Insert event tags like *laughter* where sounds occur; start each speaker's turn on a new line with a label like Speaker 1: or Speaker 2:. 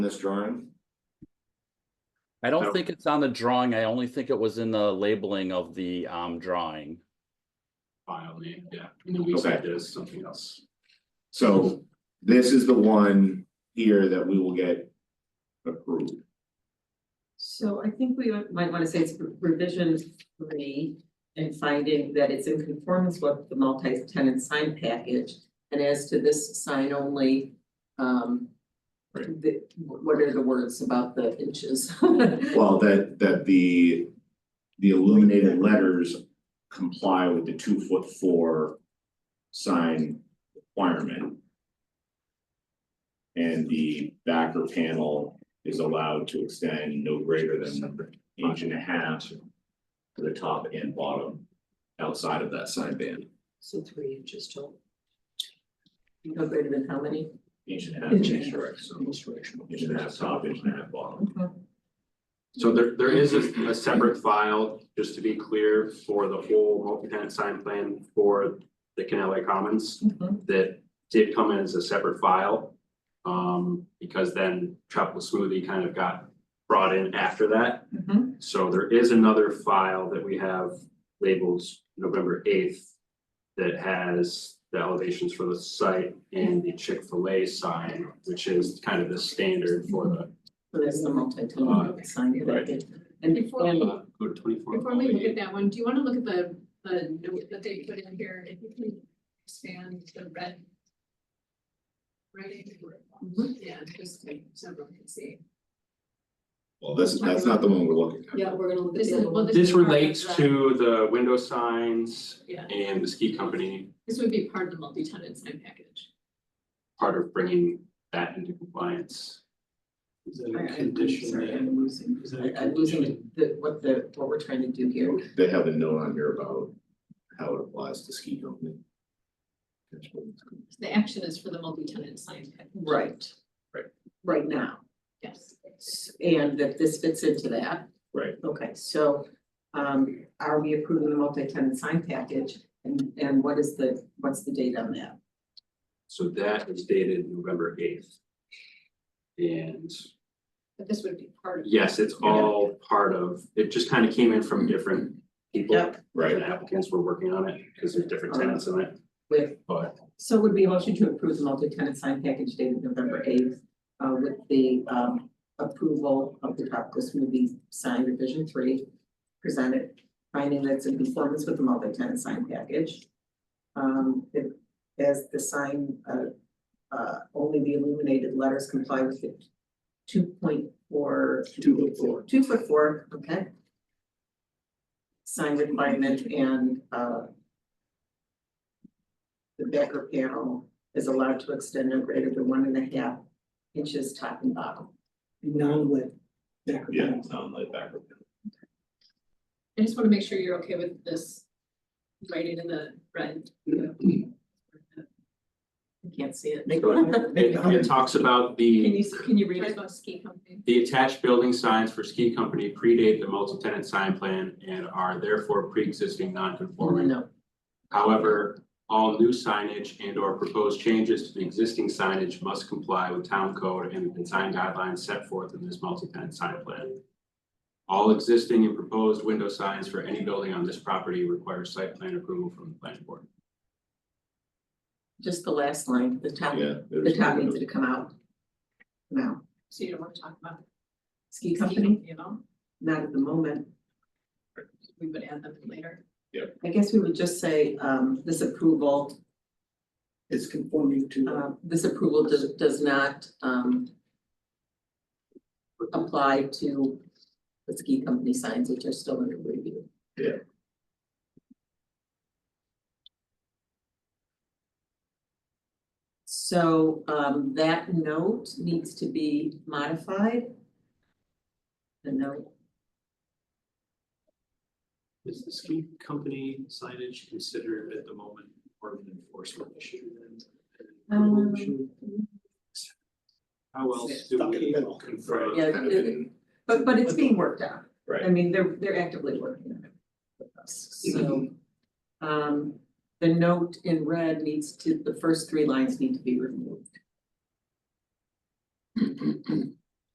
Speaker 1: this drawing?
Speaker 2: I
Speaker 1: No.
Speaker 2: don't think it's on the drawing, I only think it was in the labeling of the um drawing.
Speaker 3: file name, yeah, and then we
Speaker 1: Okay.
Speaker 3: said there's something else.
Speaker 1: So this is the one here that we will get approved.
Speaker 4: So I think we might wanna say it's revision three and finding that it's in conformance with the multi-tenant sign package. And as to this sign only, um,
Speaker 1: Right.
Speaker 4: the, what are the words about the inches? *laughs*
Speaker 1: Well, that that the the illuminated letters comply with the two foot four sign requirement. And the backer panel is allowed to extend no greater than an inch and a half to the top and bottom outside of that sign band,
Speaker 4: So three inches tall. No greater than how many?
Speaker 1: inch and a half,
Speaker 4: Inch and a
Speaker 1: inch
Speaker 4: half.
Speaker 1: direction, inch and a half top, inch and a half bottom.
Speaker 3: So there, there is a, a separate file, just to be clear, for the whole multi-tenant sign plan for the Canelli Commons
Speaker 4: Mhm.
Speaker 3: that did come in as a separate file. Um, because then Tropical Smoothie kind of got brought in after that.
Speaker 4: Mhm.
Speaker 3: So there is another file that we have labeled November eighth that has the elevations for the site and the Chick-fil-A sign, which is kind of the standard for the
Speaker 4: So that's the multi-tenant sign
Speaker 1: Right.
Speaker 4: package. And
Speaker 5: Before we-
Speaker 3: Uh, Go to twenty-four.
Speaker 5: Before we look at that one, do you wanna look at the, the note that they put in here, if you can expand the red? Writing,
Speaker 4: Mm-hmm.
Speaker 5: yeah, just like so everyone can see.
Speaker 1: Well, that's that's not the one we're looking at.
Speaker 4: Yeah, we're gonna look at
Speaker 5: This
Speaker 4: the
Speaker 5: is,
Speaker 4: other
Speaker 5: well,
Speaker 4: one.
Speaker 5: this.
Speaker 3: This
Speaker 5: is part of
Speaker 3: relates
Speaker 5: the-
Speaker 3: to the window signs
Speaker 5: Yeah,
Speaker 3: and the ski company,
Speaker 5: this would be part of the multi-tenant sign package.
Speaker 3: part of bringing that into compliance.
Speaker 6: Is that
Speaker 4: I-
Speaker 6: a
Speaker 4: I'm Sorry,
Speaker 6: condition
Speaker 4: I'm losing.
Speaker 6: that, is that a
Speaker 4: I- I'm losing
Speaker 6: condition?
Speaker 4: the, what the, what we're trying to do here.
Speaker 1: They have a note on here about how it applies to ski company.
Speaker 5: The action is for the multi-tenant sign package.
Speaker 4: Right.
Speaker 1: Right.
Speaker 4: Right now,
Speaker 5: Yes.
Speaker 4: S- and that this fits into that.
Speaker 1: Right.
Speaker 4: Okay, so, um, are we approving the multi-tenant sign package? And, and what is the, what's the date on that?
Speaker 3: So that is dated November eighth. And
Speaker 5: But this would be part of.
Speaker 3: yes, it's all part of, it just kind of came in from different people.
Speaker 4: Yep.
Speaker 1: Right,
Speaker 3: And applicants were working on it because there's different tenants in it,
Speaker 4: With,
Speaker 3: but
Speaker 4: so would be a motion to approve the multi-tenant sign package dated November eighth, uh, with the, um, approval of the tropical smoothie sign revision three presented, finding that it's in conformance with the multi-tenant sign package. Um, it- as the sign, uh, uh, only the illuminated letters comply with the two point four. Two foot four. Two foot four, okay. Sign requirement and, uh, the backer panel is allowed to extend no greater than one and a half inches top and bottom.
Speaker 6: Non-lit decorative.
Speaker 1: yeah, sound like that.
Speaker 5: I just wanna make sure you're okay with this writing in the red.
Speaker 4: I can't see it.
Speaker 3: Go
Speaker 4: *laughs*
Speaker 3: it, it talks about the.
Speaker 4: Can you, can you read
Speaker 5: Talks
Speaker 4: it?
Speaker 5: about ski company.
Speaker 3: The attached building signs for ski company predate the multi-tenant sign plan and are therefore pre-existing non-conforming.
Speaker 4: No,
Speaker 3: However, all new signage and or proposed changes to the existing signage must comply with town code and the design guidelines set forth in this multi-tenant sign plan. All existing and proposed window signs for any building on this property require site plan approval from the planning board.
Speaker 4: just the last line, the top,
Speaker 1: Yeah.
Speaker 4: the top needs to come out. Now,
Speaker 5: So you don't wanna talk about.
Speaker 4: ski company,
Speaker 5: You know,
Speaker 4: not at the moment.
Speaker 5: we would add them later.
Speaker 4: I guess we would just say, um, this approval,
Speaker 6: It's conforming to,
Speaker 4: uh, this approval does, does not, um, apply to the ski company signs, which are still under review. So um that note needs to be modified. The note,
Speaker 7: Is the ski company signage considered at the moment part of an enforcement issue
Speaker 4: Um,
Speaker 7: then? How else do
Speaker 6: Stuck in the
Speaker 7: we
Speaker 6: middle.
Speaker 7: confirm?
Speaker 4: Yeah,
Speaker 1: Kind of
Speaker 4: it-
Speaker 1: in-
Speaker 4: but but it's being worked on. I
Speaker 1: Right.
Speaker 4: mean, they're they're actively working on it with us, so. Um, the note in red needs to, the first three lines need to be removed.